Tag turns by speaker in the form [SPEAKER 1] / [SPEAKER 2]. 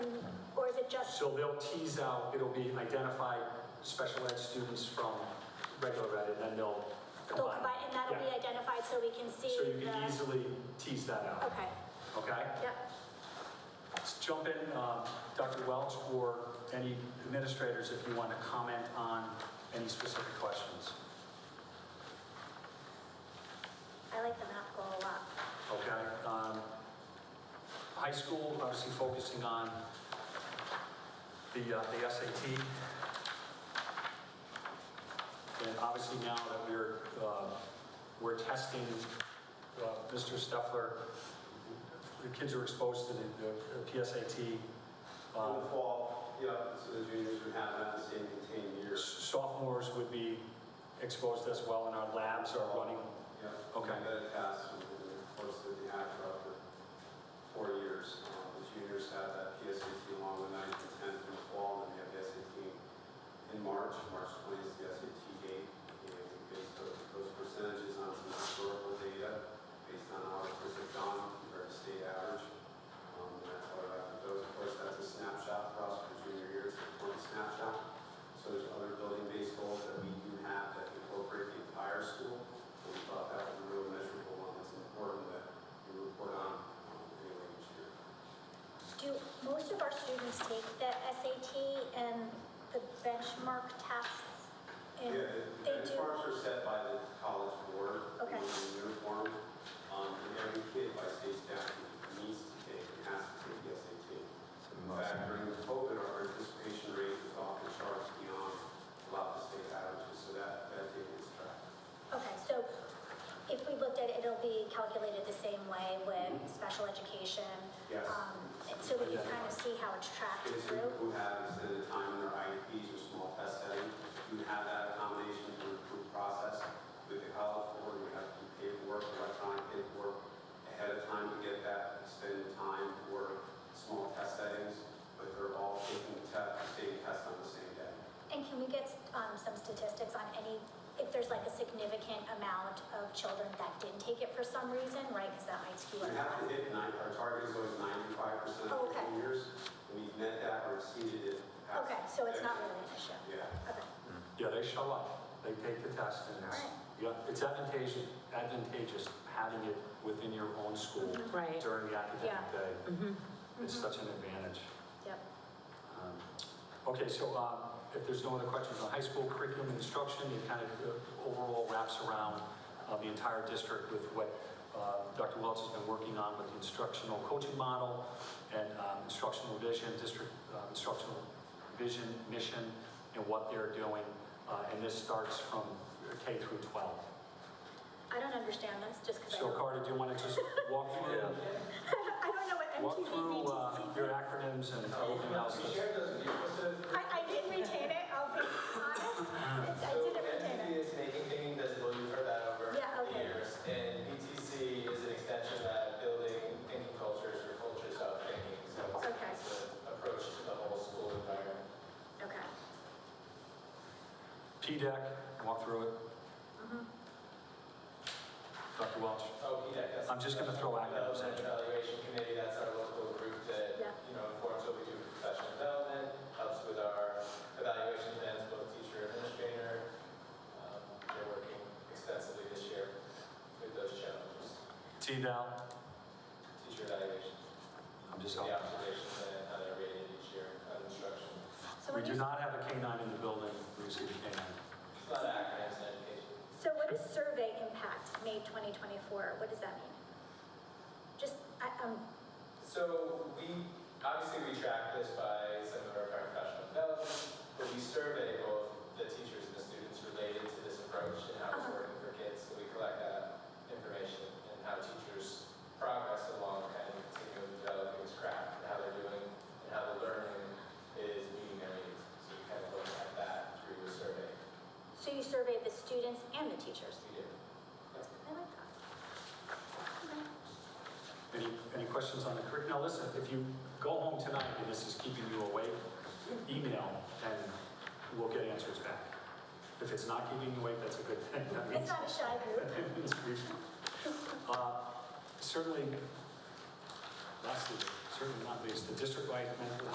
[SPEAKER 1] So they'll tease out, it'll be identified special ed students from regular ed, and then they'll
[SPEAKER 2] They'll
[SPEAKER 1] combine.
[SPEAKER 2] combine, and that'll be
[SPEAKER 1] Yeah.
[SPEAKER 2] identified so we can see
[SPEAKER 1] So you can
[SPEAKER 2] the-
[SPEAKER 1] easily tease that out,
[SPEAKER 2] Okay,
[SPEAKER 1] okay?
[SPEAKER 2] yep.
[SPEAKER 1] Let's jump in, uh, Dr. Welch or any administrators if you want to comment on any specific questions,
[SPEAKER 2] I like the math goal a lot.
[SPEAKER 1] okay? Um, High school, obviously focusing on the, uh, the SAT. And obviously now that we're, uh, we're testing, uh, Mr. Steffler, the kids are exposed to the the PSAT.
[SPEAKER 3] In
[SPEAKER 1] um,
[SPEAKER 3] the fall, yeah, so the juniors would have that same contained year.
[SPEAKER 1] sophomores would be exposed as well, and our labs are running.
[SPEAKER 3] Yeah.
[SPEAKER 1] Okay.
[SPEAKER 3] And then it passed within the course of the ACRA for four years. Um, The juniors have that PSAT along with ninth and tenth in the fall, and then we have the SAT in March. March 20th is the SAT date. And we based those those percentages on some historical data, based on how it was done compared to state average. Um, and That's what I have. Those, of course, that's a snapshot for us for junior year. It's an important snapshot. So there's other building-based goals that we do have that incorporate the entire school. We thought that was a real measurable one that's important that we report on um, anyway each year.
[SPEAKER 2] Do most of our students take the SAT and the benchmark tests? And
[SPEAKER 3] Yeah,
[SPEAKER 2] They
[SPEAKER 3] the- the
[SPEAKER 2] do,
[SPEAKER 3] benchmarks are set by the college board.
[SPEAKER 2] Okay.
[SPEAKER 3] In uniform, um, and every kid by state statute needs to take, and has to take the SAT. In fact, during the COVID, our participation rate was off the charts beyond a lot of the state averages, so that, that data is tracked.
[SPEAKER 2] okay, so if we looked at it, it'll be calculated the same way with special education?
[SPEAKER 3] Yes.
[SPEAKER 2] um, and So we can kind of see how it's tracked
[SPEAKER 3] kids who
[SPEAKER 2] through?
[SPEAKER 3] who have extended time in their IEPs or small test setting, you have that accommodation through approved process with the college board, we have to do paperwork, electronic paperwork ahead of time to get that extended time for small test settings, but they're all taking the test, the same test on the same day.
[SPEAKER 2] And can we get um, some statistics on any, if there's like a significant amount of children that didn't take it for some reason, right? Because that might skew
[SPEAKER 3] We
[SPEAKER 2] it.
[SPEAKER 3] have to hit nine, our target is always ninety-five percent
[SPEAKER 2] Oh,
[SPEAKER 3] of
[SPEAKER 2] okay.
[SPEAKER 3] the years, and we've met that or exceeded it. past-
[SPEAKER 2] Okay, so it's not really an issue?
[SPEAKER 3] Yeah.
[SPEAKER 2] Okay.
[SPEAKER 1] Yeah, they show up, they take the test, and it's, yeah, it's advantageous, advantageous having it within your own school
[SPEAKER 4] Right.
[SPEAKER 1] during the
[SPEAKER 2] Yeah. Mm-hmm.
[SPEAKER 1] academic day. It's such an advantage.
[SPEAKER 2] Yep.
[SPEAKER 1] Um, Okay, so um, if there's no other questions on high school curriculum and instruction, it kind of uh, overall wraps around uh, the entire district with what uh, Dr. Welch has been working on with the instructional coaching model and um, instructional vision, district uh, instructional vision, mission, and what they're doing. Uh, And this starts from K through 12.
[SPEAKER 2] I don't understand this, just because I
[SPEAKER 1] So
[SPEAKER 2] don't.
[SPEAKER 1] Carter, do you want to just walk through,
[SPEAKER 2] I don't know what
[SPEAKER 1] walk through
[SPEAKER 2] MTV
[SPEAKER 1] uh, your acronyms and everything else?
[SPEAKER 5] We shared those with you, so.
[SPEAKER 2] I, I didn't retain it, I'll be honest. I didn't retain
[SPEAKER 5] NTC
[SPEAKER 2] it.
[SPEAKER 5] is making thinking visible, you've heard that over
[SPEAKER 2] Yeah,
[SPEAKER 5] the
[SPEAKER 2] okay.
[SPEAKER 5] years. And PTC is an extension of that building thinking cultures or cultures of thinking. So it's-
[SPEAKER 2] Okay.
[SPEAKER 5] it's an approach to the whole school environment.
[SPEAKER 2] Okay.
[SPEAKER 1] P-DEC, E walk through it.
[SPEAKER 2] Mm-hmm.
[SPEAKER 1] Dr. Welch?
[SPEAKER 5] Oh, PDEC, that's.
[SPEAKER 1] I'm just gonna throw acronyms at
[SPEAKER 5] Development
[SPEAKER 1] you.
[SPEAKER 5] Evaluation Committee, that's our local group that,
[SPEAKER 2] Yeah.
[SPEAKER 5] you know, informs what we do with professional development, helps with our evaluation plans, both teacher and administrator. Um, They're working extensively this year with those challenges,
[SPEAKER 1] T-DAL?
[SPEAKER 5] teacher evaluations,
[SPEAKER 1] I'm just
[SPEAKER 5] the
[SPEAKER 1] helping.
[SPEAKER 5] observations and how they're rated each year on instruction.
[SPEAKER 2] So
[SPEAKER 1] We
[SPEAKER 2] what
[SPEAKER 1] do
[SPEAKER 2] is-
[SPEAKER 1] not have a K-9 in the building, we see the K-9.
[SPEAKER 5] It's not acronyms in education.
[SPEAKER 2] So what is survey impact, May 2024, what does that mean? Just, I, um,
[SPEAKER 5] So we, obviously we track this by some of our professional development, but we survey both the teachers and the students related to this approach and how it's working for kids. So we collect that information and how teachers progress along kind of continuing developing this craft and how they're doing and how the learning is meeting their needs. So we kind of look at that through the survey
[SPEAKER 2] so you survey the students and the teachers?
[SPEAKER 5] we do.
[SPEAKER 2] I like that.
[SPEAKER 1] Any, any questions on the curriculum? Now, listen, if you go home tonight and this is keeping you awake, email and we'll get answers back. If it's not keeping you awake, that's a good thing. That
[SPEAKER 2] It's
[SPEAKER 1] means-
[SPEAKER 2] not a shy group.
[SPEAKER 1] that means we- uh, Certainly, lastly, certainly not least, the district-wide mental